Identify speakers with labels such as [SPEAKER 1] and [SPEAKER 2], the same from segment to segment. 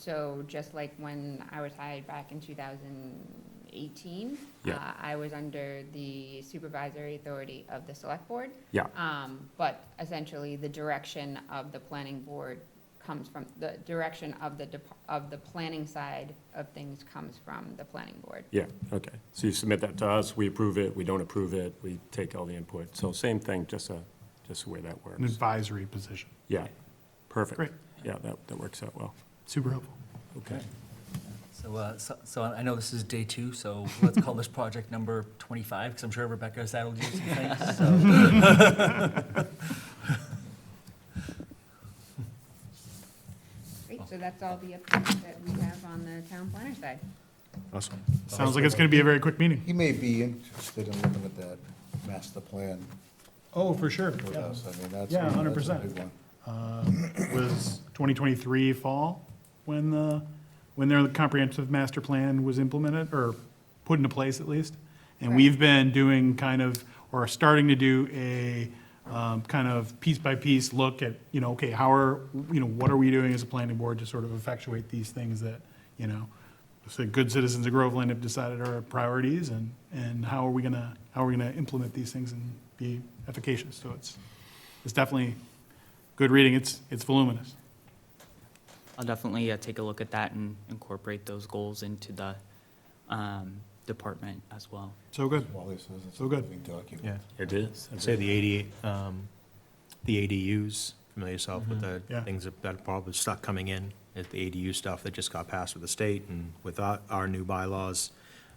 [SPEAKER 1] So just like when I was hired back in 2018,
[SPEAKER 2] Yeah.
[SPEAKER 1] uh, I was under the supervisory authority of the select board.
[SPEAKER 2] Yeah.
[SPEAKER 1] Um, But essentially, the direction of the planning board comes from, the direction of the, dep- of the planning side of things comes from the planning board.
[SPEAKER 2] Yeah, okay. So you submit that to us, we approve it, we don't approve it, we take all the input. So same thing, just a, just the way that
[SPEAKER 3] an
[SPEAKER 2] works.
[SPEAKER 3] advisory position.
[SPEAKER 2] Yeah, perfect.
[SPEAKER 3] Great.
[SPEAKER 2] Yeah, that, that works out well.
[SPEAKER 3] Super helpful.
[SPEAKER 2] Okay.
[SPEAKER 4] So, uh, so- so I know this is day two, so let's call this project number 25, because I'm sure Rebecca saddled you some things. so- uh,
[SPEAKER 1] Great, so that's all the updates that we have on the town planner side.
[SPEAKER 3] Awesome. Sounds like it's going to be a very quick meeting.
[SPEAKER 5] He may be interested in looking at that master plan
[SPEAKER 3] Oh, for sure.
[SPEAKER 5] with
[SPEAKER 3] yeah.
[SPEAKER 5] us. I mean, that's.
[SPEAKER 3] Yeah,
[SPEAKER 5] that's a
[SPEAKER 3] 100%.
[SPEAKER 5] big one.
[SPEAKER 3] Was 2023 fall when the, when their comprehensive master plan was implemented or put into place at least? And
[SPEAKER 1] Right.
[SPEAKER 3] we've been doing kind of, or starting to do a um, kind of piece by piece look at, you know, okay, how are, you know, what are we doing as a planning board to sort of effectuate these things that, you know, so good citizens of Groveland have decided are priorities and, and how are we gonna, how are we gonna implement these things and be efficacious? So it's, it's definitely good reading. It's, it's voluminous.
[SPEAKER 6] I'll definitely uh, take a look at that and incorporate those goals into the um, department as well.
[SPEAKER 3] So good.
[SPEAKER 5] Wally says it's a
[SPEAKER 3] So good.
[SPEAKER 5] moving document.
[SPEAKER 7] Yeah,
[SPEAKER 2] It is.
[SPEAKER 7] I'd say the eighty, um, the ADUs, familiar yourself with the
[SPEAKER 3] Yeah.
[SPEAKER 7] things that- that probably stuck coming in, at the ADU stuff that just got passed with the state and with our, our new bylaws.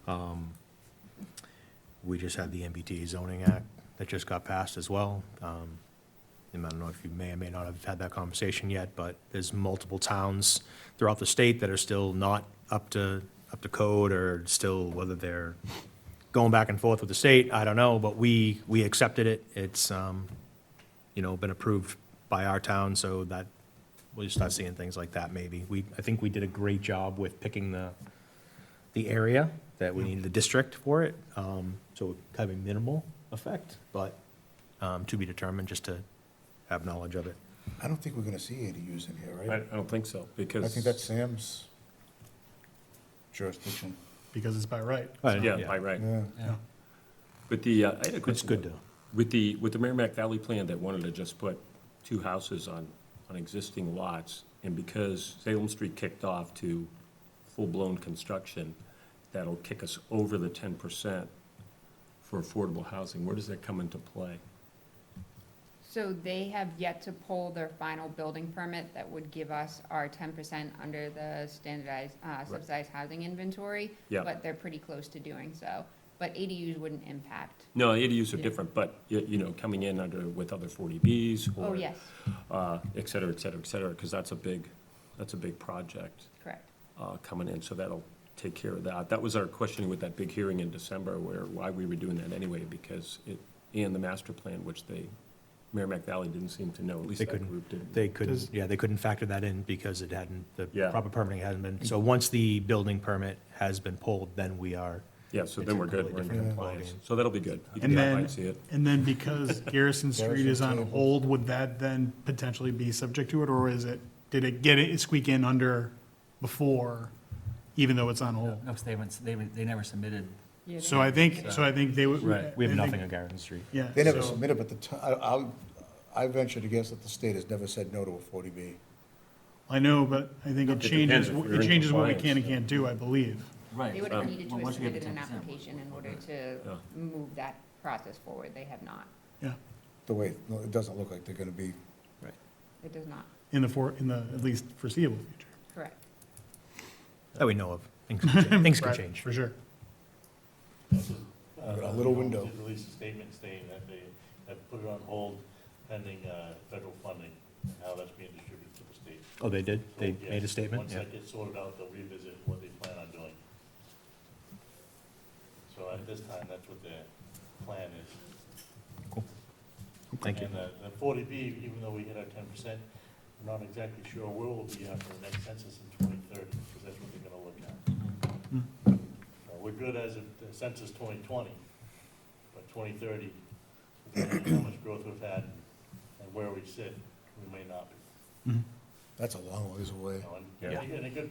[SPEAKER 7] Um, We just had the MBTA zoning act that just got passed as well. Um, And I don't know if you may or may not have had that conversation yet, but there's multiple towns throughout the state that are still not up to, up to code or still, whether they're going back and forth with the state, I don't know, but we, we accepted it. It's, um, you know, been approved by our town, so that, we'll just start seeing things like that maybe. We, I think we did a great job with picking the, the area that we needed the district for it, um, so it kind of a minimal effect, but, um, to be determined, just to have knowledge of it.
[SPEAKER 5] I don't think we're gonna see ADUs in here,
[SPEAKER 2] I, I
[SPEAKER 5] right?
[SPEAKER 2] don't think so, because.
[SPEAKER 5] I think that's Sam's jurisdiction.
[SPEAKER 3] Because it's by right.
[SPEAKER 2] Yeah, by right.
[SPEAKER 5] Yeah.
[SPEAKER 4] Yeah.
[SPEAKER 2] But the, uh, I had a
[SPEAKER 7] It's
[SPEAKER 2] question.
[SPEAKER 7] good though.
[SPEAKER 2] With the, with the Merrimack Valley plan that wanted to just put two houses on, on existing lots, and because Salem Street kicked off to full-blown construction, that'll kick us over the ten percent for affordable housing, where does that come into play?
[SPEAKER 1] So they have yet to pull their final building permit that would give us our ten percent under the standardized, uh, subsidized housing inventory.
[SPEAKER 2] Yeah.
[SPEAKER 1] But they're pretty close to doing so, but ADUs wouldn't impact.
[SPEAKER 2] No, ADUs are
[SPEAKER 1] Yeah.
[SPEAKER 2] different, but, you, you know, coming in under, with other forty Bs or.
[SPEAKER 1] Oh, yes,
[SPEAKER 2] Uh, et cetera, et cetera, et cetera, because that's a big, that's a big project.
[SPEAKER 1] correct.
[SPEAKER 2] uh, coming in, so that'll take care of that. That was our questioning with that big hearing in December, where, why we were doing that anyway, because it, and the master plan, which they, Merrimack Valley didn't seem to know, at least
[SPEAKER 7] They
[SPEAKER 2] that
[SPEAKER 7] couldn't.
[SPEAKER 2] group didn't.
[SPEAKER 7] They couldn't, yeah, they couldn't factor that in because it hadn't, the
[SPEAKER 2] Yeah. Mm-hmm.
[SPEAKER 7] proper permitting hadn't been. So once the building permit has been pulled, then we are
[SPEAKER 2] Yeah, so then we're good,
[SPEAKER 7] It's a
[SPEAKER 2] we're in
[SPEAKER 7] completely different
[SPEAKER 2] compliance,
[SPEAKER 7] ballgame.
[SPEAKER 2] so that'll be good. You can
[SPEAKER 3] And then,
[SPEAKER 2] see it.
[SPEAKER 3] and then because Garrison Street is on
[SPEAKER 5] Garrison
[SPEAKER 3] hold, would that then potentially be subject to it? Or is it, did it get it squeak in under before, even though it's on hold?
[SPEAKER 4] No, 'cause they haven't, they, haven't- they never submitted.
[SPEAKER 3] So I think, so I think they would.
[SPEAKER 2] Right.
[SPEAKER 7] We have
[SPEAKER 3] I think-
[SPEAKER 7] nothing on Garrison Street.
[SPEAKER 3] Yeah.
[SPEAKER 5] They never
[SPEAKER 3] so-
[SPEAKER 5] submitted, but the, ti- I, I'll- I venture to guess that the state has never said no to a forty B.
[SPEAKER 3] I know, but I think it
[SPEAKER 2] depends
[SPEAKER 3] changes,
[SPEAKER 2] if we're in
[SPEAKER 3] it changes what we
[SPEAKER 2] compliance.
[SPEAKER 3] can and can't do, I believe.
[SPEAKER 4] Right.
[SPEAKER 1] They would have needed to have submitted an application in order
[SPEAKER 2] Yeah.
[SPEAKER 1] to move that process forward. They have not.
[SPEAKER 3] Yeah.
[SPEAKER 5] The way, no, it doesn't look like they're gonna be,
[SPEAKER 1] It does not,
[SPEAKER 3] In the for, in the, at least foreseeable future.
[SPEAKER 1] correct.
[SPEAKER 7] That we know of. Things can change. Things can
[SPEAKER 3] Right,
[SPEAKER 7] change.
[SPEAKER 3] For sure.
[SPEAKER 5] We've got a little window.
[SPEAKER 8] Did release a statement saying that they have put it on hold pending uh, federal funding and how that's being distributed to the state.
[SPEAKER 7] Oh, they did?
[SPEAKER 8] So,
[SPEAKER 7] They
[SPEAKER 8] yes,
[SPEAKER 7] made a statement?
[SPEAKER 8] Once
[SPEAKER 7] Yeah.
[SPEAKER 8] that gets sorted out, they'll revisit what they plan on doing. So at this time, that's what their plan is.
[SPEAKER 7] Thank you.
[SPEAKER 8] And uh, the forty B, even though we hit our ten percent, we're not exactly sure where we'll be after the next census in twenty thirty, because that's what they're gonna look at.
[SPEAKER 3] Mm-hmm.
[SPEAKER 8] So Uh, We're good as of the census twenty twenty, but twenty thirty, depending on how much growth we've had and where we sit, we may not be.
[SPEAKER 3] Mm-hmm.
[SPEAKER 5] that's a long ways away.
[SPEAKER 8] You know, and-
[SPEAKER 2] Yeah.
[SPEAKER 8] And a good